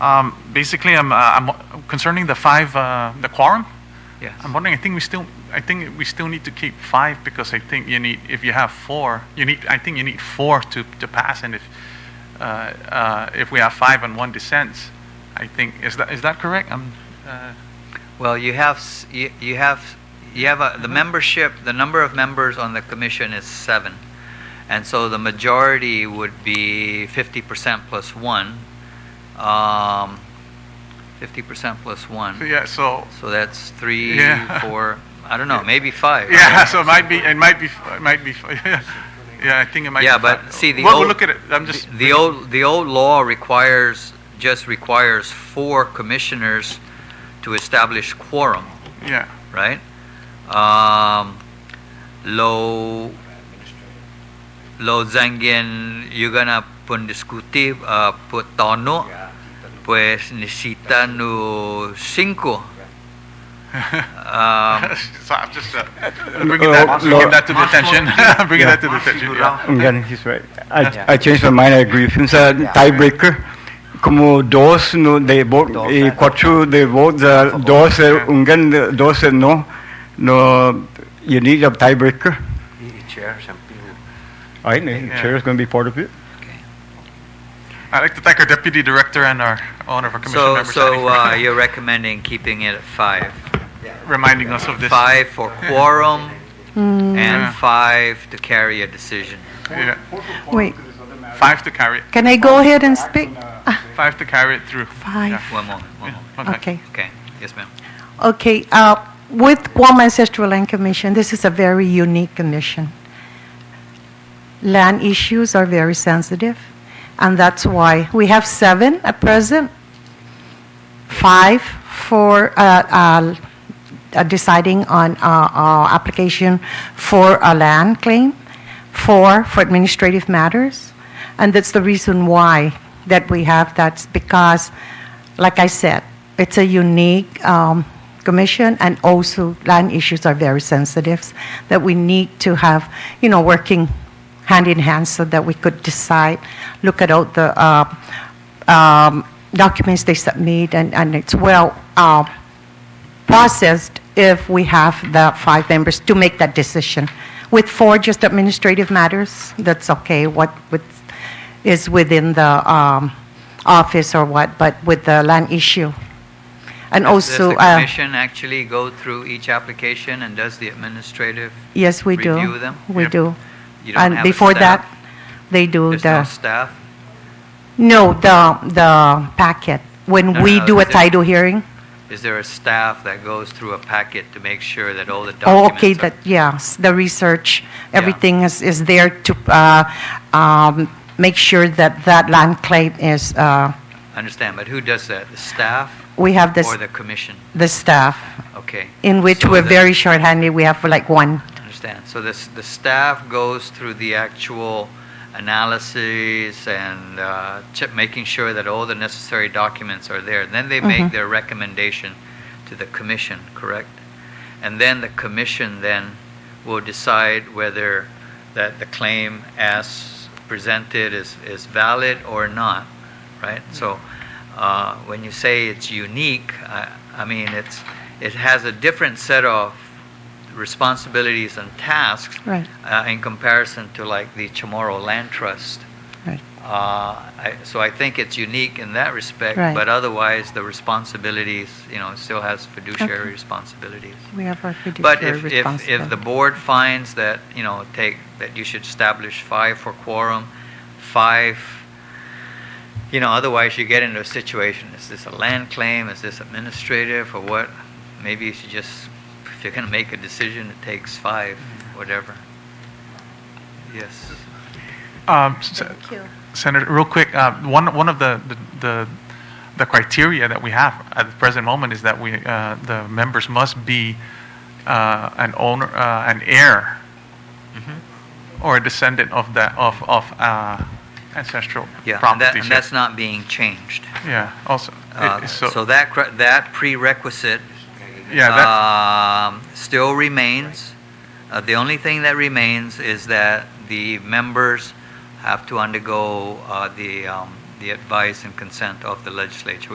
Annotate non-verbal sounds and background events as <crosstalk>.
Um, Basically, I'm, uh, I'm concerning the five, uh, the quorum, Yes. I'm wondering, I think we still, I think we still need to keep five because I think you need, if you have four, you need, I think you need four to, to pass and if, uh, uh, if we have five and one dissents, I think, is that, is that correct? I'm, uh, Well, you have, s- you you have, you have, a- the Mm-hmm. membership, the number of members on the commission is seven. And so the majority would be fifty percent plus one. Um, Fifty percent plus one. Yeah, so, So that's three, Yeah. four, I don't know, maybe five. yeah, <laughs> so it might be, it might be, it might be, <laughs> yeah, I think it might be. Yeah, but five. see, the Well, old... we'll look at it, I'm just. the- The old, the old law requires, just requires four commissioners to establish quorum. Yeah, <laughs> right? Um, lo lo zangin gonna pun discutir uh, put tono pues necesita nu cinco. Um, <laughs> so I'm just, uh, <laughs> bringing that, bringing that to the <laughs> attention, bringing that to the attention, yeah. Yan, he's right. I, Yeah. I changed my mind, I agree with him. Sa tiebreaker, como dos, no, they vote, eh, cuatro, they vote, the dos, eh, ungan, eh, dos, eh, no, no, you need a tiebreaker. I know, Yeah. chair is going to be part of it. I'd like to thank our deputy director and our owner of our commission so members. so uh, you're recommending keeping it at five, <laughs> reminding us of this. five for quorum Yeah. Hmm. and five to carry a decision. Yeah. Wait, Five to carry it. can I go ahead and speak? Ah, Five to carry it through. Five. Yeah. One moment, one Yeah. moment. One second. Okay, Okay, yes, ma'am. okay. uh, With Guam Ancestral Land Commission, this is a very unique commission. Land issues are very sensitive, and that's why we have seven at present, five for uh, uh, uh, deciding on uh, uh, application for a land claim, four for administrative matters, and that's the reason why that we have that's because, like I said, it's a unique um, commission, and also land issues are very sensitive that we need to have, you know, working hand in hand so that we could decide, look at all the uh, um, documents they submit, and, and it's well. Uh, processed if we have the five members to make that decision. With four just administrative matters, that's okay, what with- is within the um, office or what, but with the land issue. And Does- also, Does the uh, commission actually go through each application and does the administrative? yes, we do. review them? We Yep. do. You don't And have a before that, staff? they do There's no the, staff? no, the, the packet. No, When we no, do a is there- title hearing, Is there a staff that goes through a packet to make sure that all the Oh, okay, documents that, are? yes, the research, everything is, is there to uh, um, make sure that that land claim is, uh, Understand, but who does that? The staff we have this, or the commission? the staff, Okay. in which So we're the- very shorthanded, we have like one. Understand. So this, the staff goes through the actual analyses and uh, che- making sure that all the necessary documents are there. Then they make their recommendation to the commission, correct? And then the commission then will decide whether that the claim as presented is, is valid or not, right? So uh, when you say it's unique, I, I mean, it's, it has a different set of responsibilities and tasks Right. uh, in comparison to like the Chamorro Land Trust. Right. Uh, I, so I think it's unique in that respect, Right. but otherwise the responsibilities, you know, it still has fiduciary Okay. responsibilities. We have our But fiduciary if, if, if the responsibility. board finds that, you know, take, that you should establish five for quorum, five, you know, otherwise you get into a situation, is this a land claim, is this administrative, or what? Maybe you should just, if you're gonna make a decision, it takes five, whatever. Yes. Um, s- Senator, real quick, uh, one, one of the, the- the, the criteria that we have at the present moment is that we, uh, the members must be uh, an owner, uh, an heir Mm-hmm. or a descendant of that, of, of uh, ancestral Yeah, and that- property. and that's not being changed. Yeah, also, it- <laughs> Uh, it's So that, cre- that prerequisite Yeah, that, um, still remains. Uh, the only thing that remains is that the members have to undergo uh, the, um, the advice and consent of the legislature.